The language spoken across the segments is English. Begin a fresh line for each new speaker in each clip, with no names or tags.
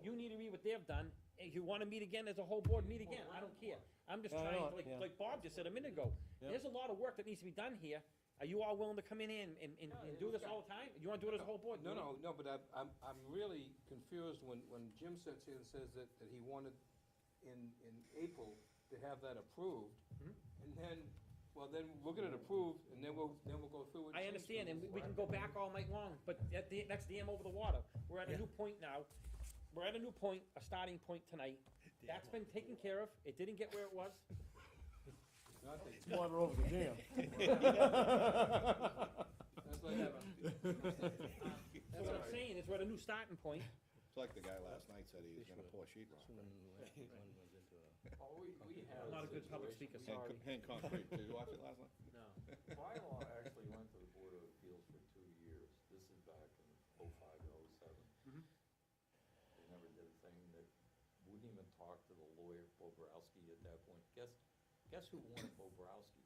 what they've done, if you wanna meet again, as a whole board, meet again, I don't care. I'm just
No, I
trying,
know,
like,
yeah.
like Bob just said a minute ago,
Yeah.
there's a lot of work that needs to be done here. Are you all willing to come in and, and, and
No,
and
it
do
was
this
done.
all the time? You wanna do it as a whole board?
No, no, no, but I'm, I'm, I'm really confused when, when Jim sits here and says that, that he wanted in, in April to have that approved.
Mhm.
And then, well, then we'll get it approved and then we'll, then we'll go through and
I
change
understand, and we-
things.
we can go back all night long, but at the, that's the dam over the water. We're at a new point now. We're at a new point, a starting point tonight. That's been taken care of. It didn't get where it was.
It's not that-
Water over the dam.
That's like,
That's
That's
Um, what
all
I'm
right.
saying, is we're at a new starting point.
It's like the guy last night said he was gonna pour sheet rock.
All Oh, we, we have.
I'm not a good public
situation-
speaker, sorry.
Hand co- Hand concrete, did you watch it last night?
No.
Bylaw actually went to the Board of Appeals for two years, this is back in oh five to oh seven.
Mhm.
They never did a thing, that wouldn't even talk to the lawyer, Bobrowski, at that point, guess, guess who wanted Bobrowski?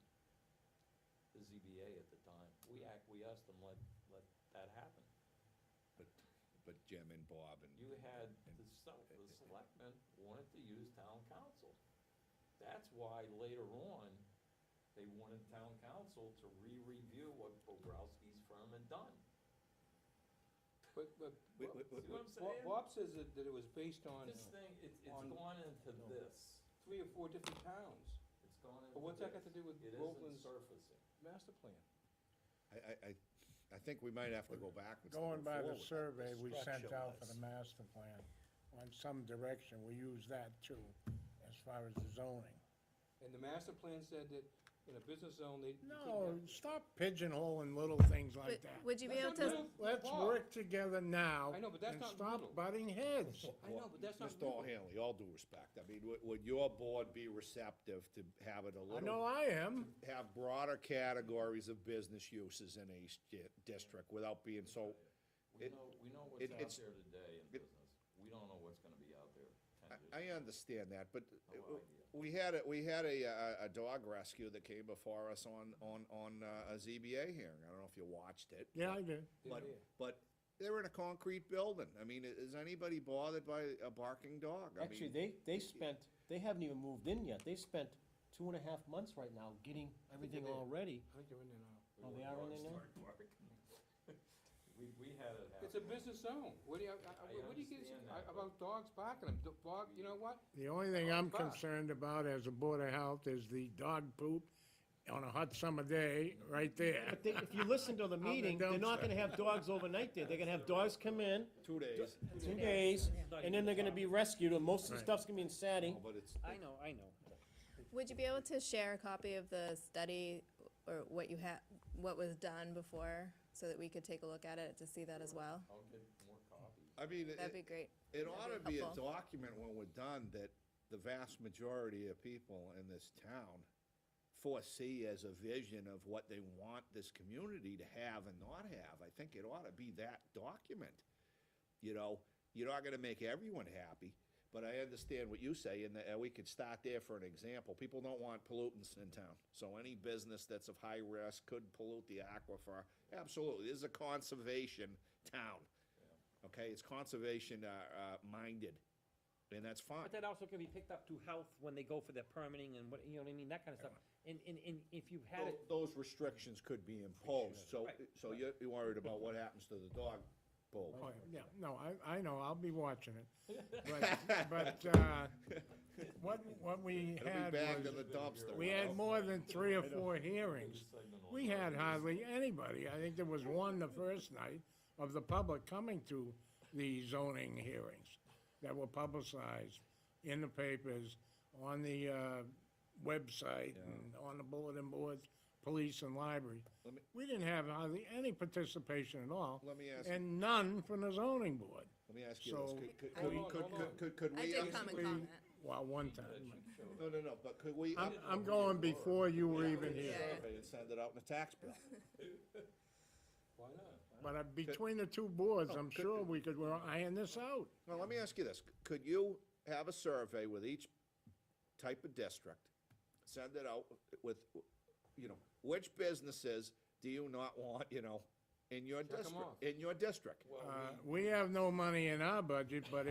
The ZBA at the time, we acquiesced and let, let that happen.
But Jim and Bob and,
You had, the se- the selectmen wanted to use town council. That's why later on, they wanted town council to re-review what Bobrowski's firm had done.
but, but,
Wait, wait, wait,
See what I'm
Bob-
saying?
Bob says that, that it was based on
This thing, it's, it's
on-
gone into
No.
this,
three or four different towns,
it's gone into this.
but what's that got to do with
It isn't
Groveland's
surfacing.
master plan?
I, I, I, I think we might have to go backwards. to
Going
move
by the
forward.
survey we sent out for the
structure-wise.
master plan, on some direction, we use that too, as far as the zoning.
And the master plan said that in a business zone, they. you couldn't
No,
have-
stop pigeonholing little things like that.
Would you be
That's not
able to,
real,
Let's
Bob.
work together now.
I know, but that's not
And
little.
stop butting heads.
I know, but that's not.
Mr.
real.
O'Hanley, all due respect, I mean, would, would your board be receptive to having a
I know
little,
I am.
have broader categories of business uses in a sti- district without being so,
We
It-
know, we know
it-
what's out
it's-
there today in
it-
business, we don't know what's gonna be out there ten years.
I, I understand that, but
No
Oh,
uh,
idea.
we had, a we had a, uh, a dog rescue that came before us on, on, on uh, a ZBA hearing, I don't know if you watched it.
Yeah, I do.
But,
Yeah.
but they're in a concrete building. I mean, i- is anybody bothered by a barking dog? I
Actually,
mean,
they, they spent, they haven't even moved in yet, they spent two and a half months right now getting everything
there.
all ready.
I think you're in there now.
Oh,
We
they
want
are in
dogs
there now?
to bark. We, we had it happen.
It's a business zone. What do you, I- I-
I
what do you get
understand
I-
that,
about dogs barking? them? Do- Dog, you know what?
The only thing I'm
Bob.
concerned about as a Board of Health is the dog poop on a hot summer day, right there.
But they, if you listen to the
the
meeting, they're not gonna have dogs overnight there, they're gonna have dogs come in,
two days.
two days,
Not
and then they're gonna
even-
be rescued, and most of the
Right.
stuff's gonna be in Saturday.
Oh, But it's,
I know, I know.
would you be able to share a copy of the study or what you had, what was done before? So that we could take a look at it to see that as well?
I'll get more copies.
I mean,
That'd be
it,
great.
it
that'd
ought to
be
be a
helpful.
document when we're done that the vast majority of people in this town foresee as a vision of what they want this community to have and not have. I think it ought to be that document. You know, you're not gonna make everyone happy, but I understand what you say, and that uh, we could start there for an example. People don't want pollutants in town, so any business that's of high risk could pollute the aquifer. Absolutely, this is a conservation town, okay? It's conservation, uh, uh, minded, and that's fine.
But that also can be picked up to health when they go for their permitting and what, you know what I mean, that kind of stuff. And, and, and if you've had it,
Tho- Those restrictions could be imposed, so,
Right,
so you're you're worried about what happens to the dog bowl.
Oh, Yeah, no, I, I know, I'll be watching it. But, but, uh, what, what we
It'll
had
be bagged in the
was,
dumpster.
we had more than three or four hearings.
Segment on
We
that.
had hardly anybody. I think there was one the first night of the public coming to the zoning hearings that were publicized in the papers, on the, uh, website, and on the bulletin boards, police and library.
Let me-
We didn't have hardly any participation at all.
Let me ask-
And none from the zoning board.
Let me ask you this,
So-
could, could,
Hold on,
could-
hold
could,
on.
could, could we?
I did
ask-
come and
We-
comment.
Well, one time.
That should show
No, no, no, but could we?
I'm, I'm going before you were even here.
Yeah.
survey and send it out in a tax bill.
Why not?
But uh, between the two boards,
Oh,
I'm sure we could, we're iron this out.
Now, let me ask you this, could you have a survey with each type of district? Send it out with, you know, which businesses do you not want, you know, in your
'em
district,
off.
in your district?
Uh, We have no money in our budget, but